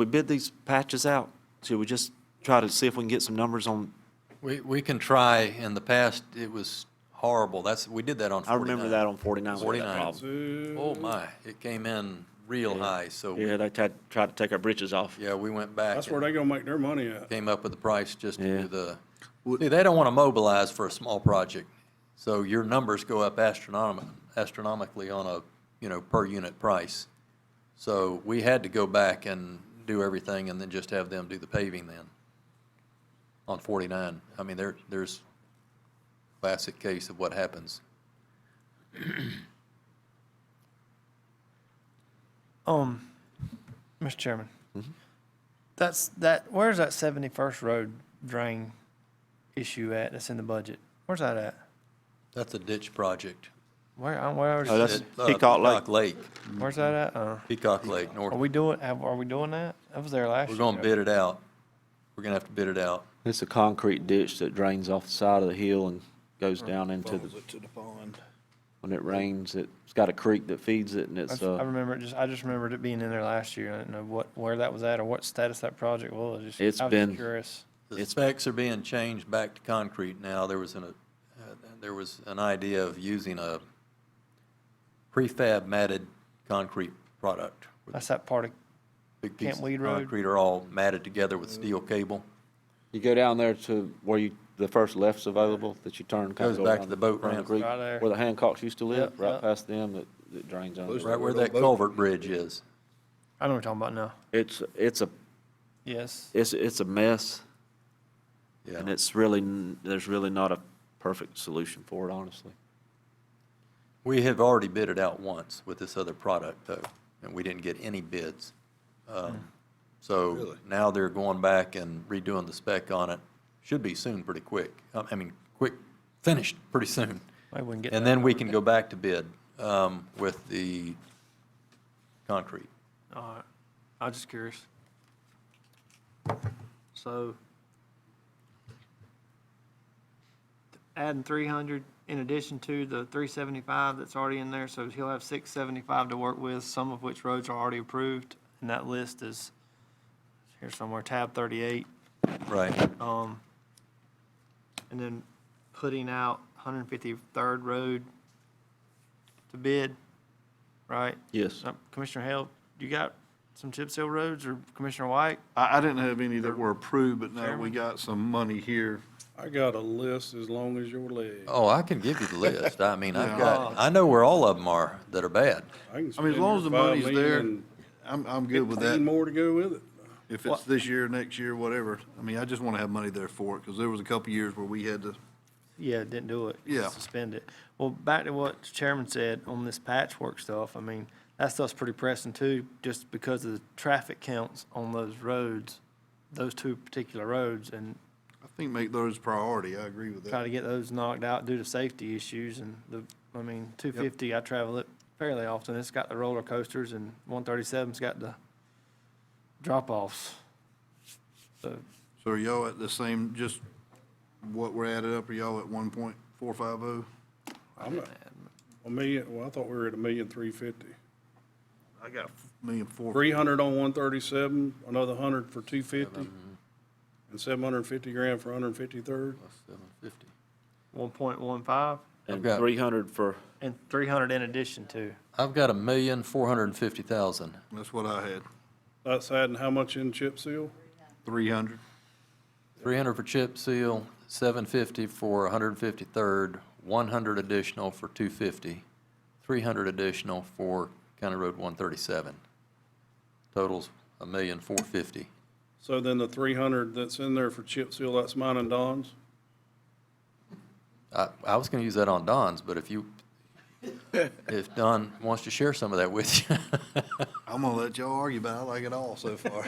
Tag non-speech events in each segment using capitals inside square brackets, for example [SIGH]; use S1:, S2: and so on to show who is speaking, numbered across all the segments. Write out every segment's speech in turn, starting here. S1: we bid these patches out, should we just try to see if we can get some numbers on,
S2: We, we can try. In the past, it was horrible. That's, we did that on
S1: I
S2: 49.
S1: remember that on 49 we had that
S2: 49.
S1: problem.
S2: Oh, my. It came in real high, so, we-
S1: Yeah, they tried, tried to take our britches off.
S2: yeah, we went back.
S3: That's where
S2: and
S3: they gonna make their money at.
S2: Came up with the price just to
S1: Yeah.
S2: do the, see, they don't want to mobilize for a small project. So your numbers go up astronomic, astronomically on a, you know, per unit price. So we had to go back and do everything and then just have them do the paving then on 49. I mean, there, there's classic case of what happens.
S4: Um, Mr. Chairman,
S1: Mm-hmm.
S4: that's, that, where's that 71st Road drain issue at that's in the budget? Where's that at?
S2: That's a ditch project.
S4: Where, I- where,
S1: Oh,
S4: is-
S1: that's-
S2: It- uh,
S1: Peacock Lake.
S4: where's that at? Uh,
S2: Peacock Lake,
S4: Are
S2: north.
S4: we doing, have- are we doing that? I was there last year.
S2: We're gonna bid it out. We're gonna have to bid it out.
S1: It's a concrete ditch that drains off the side of the hill and goes down into the,
S5: Falls it to the pond.
S1: when it rains, it's got a creek that feeds it and it's,
S4: That's- I
S1: uh,
S4: remember, it just, I just remembered it being in there last year. I didn't know what, where that was at or what status that project was. Just-
S1: It's
S4: I was just
S1: been-
S4: Curious.
S2: The
S1: It's-
S2: specs are being changed back to concrete now. There was an, uh, there was an idea of using a prefab matted concrete product. where
S4: That's that part of,
S2: Big pieces of
S4: Weed Road?
S2: Concrete are all matted together with
S5: Mm.
S2: steel cable.
S1: you go down there to where you, the first left's available that you turn. kinda
S2: Goes
S1: go
S2: back to
S1: around
S2: the boat ramp.
S1: concrete,
S4: Right there.
S1: Where the Hancocks used to live,
S4: Yep,
S1: right
S4: yep.
S1: past them, that, that drains on.
S5: Those-
S2: Right where
S5: Little
S2: that
S5: boat.
S2: culvert bridge is.
S4: I know what you're talking about now.
S1: It's, it's a,
S4: Yes.
S1: it's, it's a mess. And
S2: Yeah.
S1: it's really, n- there's really not a perfect solution for it, honestly.
S2: We have already bid it out once with this other product though, and we didn't get any bids. Um, So
S5: Hmm. Really?
S2: now they're going back and redoing the spec on it. Should be soon, pretty quick. I I mean, quick, finished pretty soon.
S4: Maybe we can get
S2: And
S4: that.
S2: then we can go back to bid um, with the concrete.
S6: All right, I was Uh, just curious. So adding three hundred in addition to the three seventy-five that's already in there, so he'll have six seventy-five to work with, some of which roads are already approved, and that list is here somewhere, tab thirty-eight.
S2: Right.
S6: Um, and then putting out one hundred fifty-third road to bid, right?
S1: Yes.
S6: Uh, Commissioner Hale, you got some chip seal roads or Commissioner White?
S5: I, I didn't have any that were approved, but now we got some money here.
S3: I got a list as long as your leg.
S2: Oh, I can give you the list. I mean, I've
S5: Yeah.
S2: got, I know where all of them are that are bad.
S3: can
S5: I mean,
S3: spend
S5: as long as
S3: your
S5: the
S3: five
S5: money's
S3: million
S5: there,
S3: and
S5: I'm, I'm good with
S3: Fifteen
S5: that.
S3: more to go with it.
S5: If it's this year, next year, whatever. I mean, I just want to have money there for it, because there was a couple years where we had to,
S4: Yeah, didn't do it.
S5: Yeah.
S4: Suspend it. Well, back to what the chairman said on this patchwork stuff, I mean, that stuff's pretty pressing too, just because of the traffic counts on those roads, those two particular roads, and
S5: I think, make those priority. I agree with
S4: try
S5: that.
S4: to get those knocked out due to safety issues and the, I mean, two fifty, I travel it fairly often. It's got the roller coasters and one thirty-seven's got the drop-offs. So,
S5: So are y'all at the same, just what we're added up, are y'all at one point four five oh?
S3: I'm not, a million, well, I thought we were at a million three fifty.
S5: I got million four.
S3: Three hundred on one thirty-seven, another hundred for two fifty, and seven hundred and fifty grand for hundred and fifty-third.
S6: One point one five
S1: And
S2: got-
S1: three hundred for,
S4: and three hundred in addition to.
S2: I've got a million, four hundred and fifty thousand.
S5: That's what I had,
S3: That's adding how much in chip seal?
S5: three hundred.
S2: Three hundred for chip seal, seven fifty for one hundred and fifty-third, one hundred additional for two fifty, three hundred additional for County Road one thirty-seven. Totals a million, four fifty.
S3: So then the three hundred that's in there for chip seal, that's mine and Don's?
S2: I, I was gonna use that on Don's, but if you, if Don wants to share some of that with you. [LAUGHS]
S5: I'm gonna let y'all argue about it. I like it all
S3: [LAUGHS]
S5: so far.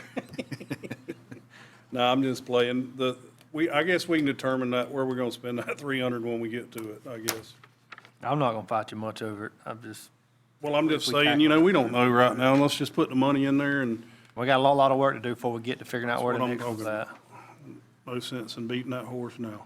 S3: No, I'm just playing. The, we, I guess we can determine that, where we're gonna spend that [LAUGHS] three hundred when we get to it, I guess.
S4: I'm not gonna fight you much over it. I'm just,
S3: Well, I'm just
S4: If we
S3: saying, you know, we don't know right now. Let's just put the money in there and
S4: We got a lot, lot of work to do before we get to figuring out where
S3: That's
S4: the
S3: what I'm
S4: next one's
S3: talking
S4: at.
S3: no sense in beating that horse now.